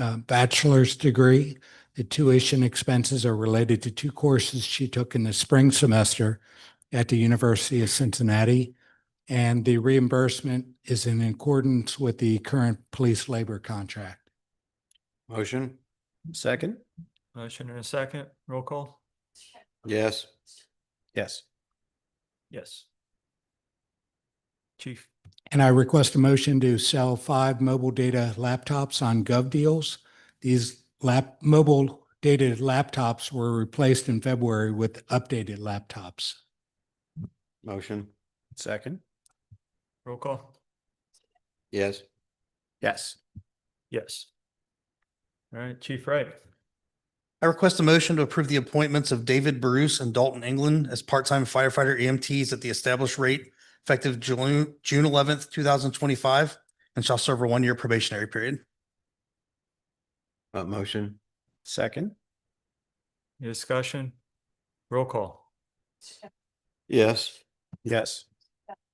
uh, bachelor's degree. The tuition expenses are related to two courses she took in the spring semester at the University of Cincinnati. And the reimbursement is in accordance with the current police labor contract. Motion? Second? Motion and a second, roll call? Yes. Yes. Yes. Chief, And I request a motion to sell five mobile data laptops on Gov Deals. These lap, mobile data laptops were replaced in February with updated laptops. Motion? Second? roll call? Yes. Yes. Yes. All right, Chief Wright, I request a motion to approve the appointments of David Bruce and Dalton England as part-time firefighter EMTs at the established rate effective June, June eleventh, two thousand twenty-five, and shall serve a one-year probationary period. Uh, motion? Second? any discussion? Roll call? Yes. Yes.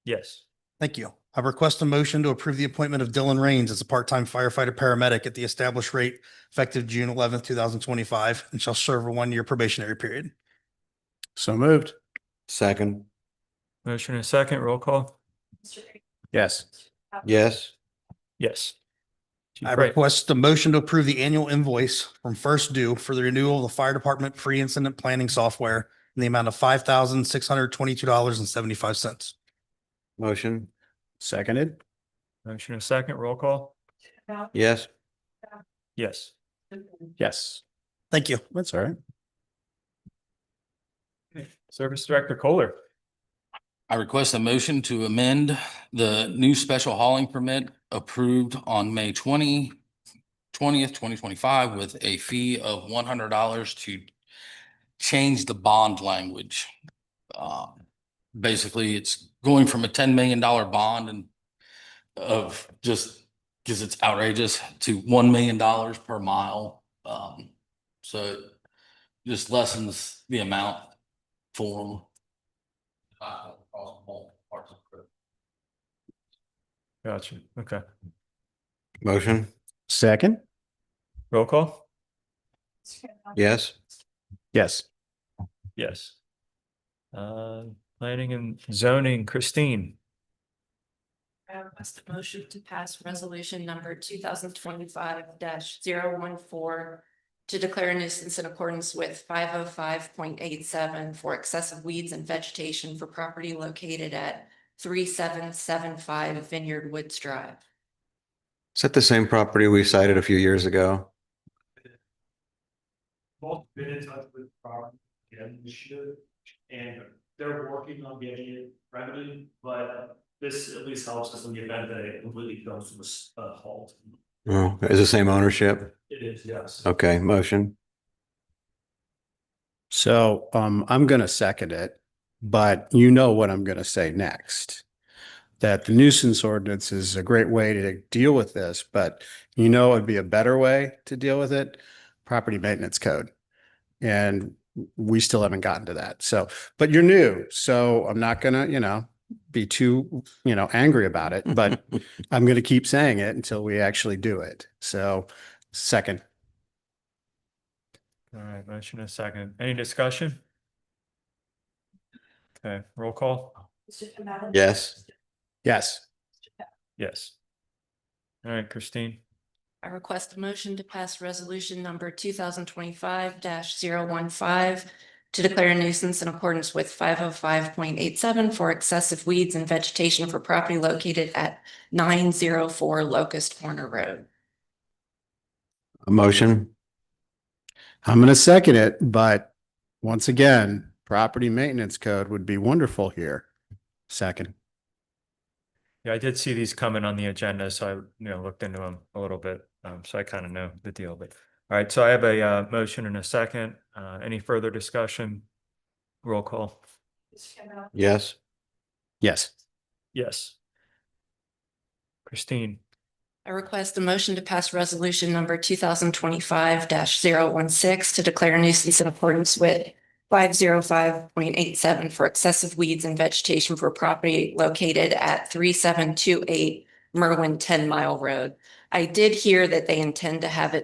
Yes. Thank you. I request a motion to approve the appointment of Dylan Rains as a part-time firefighter paramedic at the established rate effective June eleventh, two thousand twenty-five, and shall serve a one-year probationary period. So moved. Second? Motion and a second, roll call? Yes. Uh. Yes. Yes. Chief I Wright, request a motion to approve the annual invoice from First Due for the renewal of the fire department pre-incident planning software in the amount of five thousand six hundred twenty-two dollars and seventy-five cents. Motion? Seconded? motion and a second, roll call? Yes. Yes. Yes. Mm-hmm. Thank you. That's all right. Service Director Kohler, I request a motion to amend the new special hauling permit approved on May 20, 20th, twenty twenty-five with a fee of one hundred dollars to change the bond language. Uh, Basically, it's going from a ten million dollar bond and of just, because it's outrageous, to one million dollars per mile. Um, So it just lessens the amount for them. Uh, across multiple parts of the- gotcha, okay, Motion? Second? roll call? Yes. Yes. Yes. Uh, planning and zoning, Christine, I request a motion to pass resolution number two thousand twenty-five 14 to declare a nuisance in accordance with five oh five point eight seven for excessive weeds and vegetation for property located at three seven seven five Vineyard Woods Drive. Is that the same property we cited a few years ago? both been in touch with Rob again this year. And they're working on getting it remedied, but this at least helps us in the event that it completely comes to a s- a halt. Oh, is the same ownership? It is, yes. Okay, motion? So um, I'm going to second it, but you know what I'm going to say next. That the nuisance ordinance is a great way to deal with this, but you know, it'd be a better way to deal with it, property maintenance code. And we still haven't gotten to that. So, but you're new, so I'm not gonna, you know, be too, you know, angry about it, but I'm going to keep saying it until we actually do it. So second, all right, motion and a second, any discussion? Okay, roll call? Yes. yes. Yes. All right, Christine, I request a motion to pass resolution number two thousand twenty-five 15 to declare a nuisance in accordance with five oh five point eight seven for excessive weeds and vegetation for property located at nine zero four Locust Corner Road. A motion? I'm going to second it, but once again, property maintenance code would be wonderful here. Second. yeah, I did see these coming on the agenda, so I, you know, looked into them a little bit, um, so I kind of know the deal, but. All right, so I have a, uh, motion and a second, uh, any further discussion? Roll call? Yes. Yes. Yes. Christine, I request a motion to pass resolution number two thousand twenty-five 16 to declare a nuisance in accordance with five zero five point eight seven for excessive weeds and vegetation for property located at three seven two eight Merwin Ten Mile Road. I did hear that they intend to have it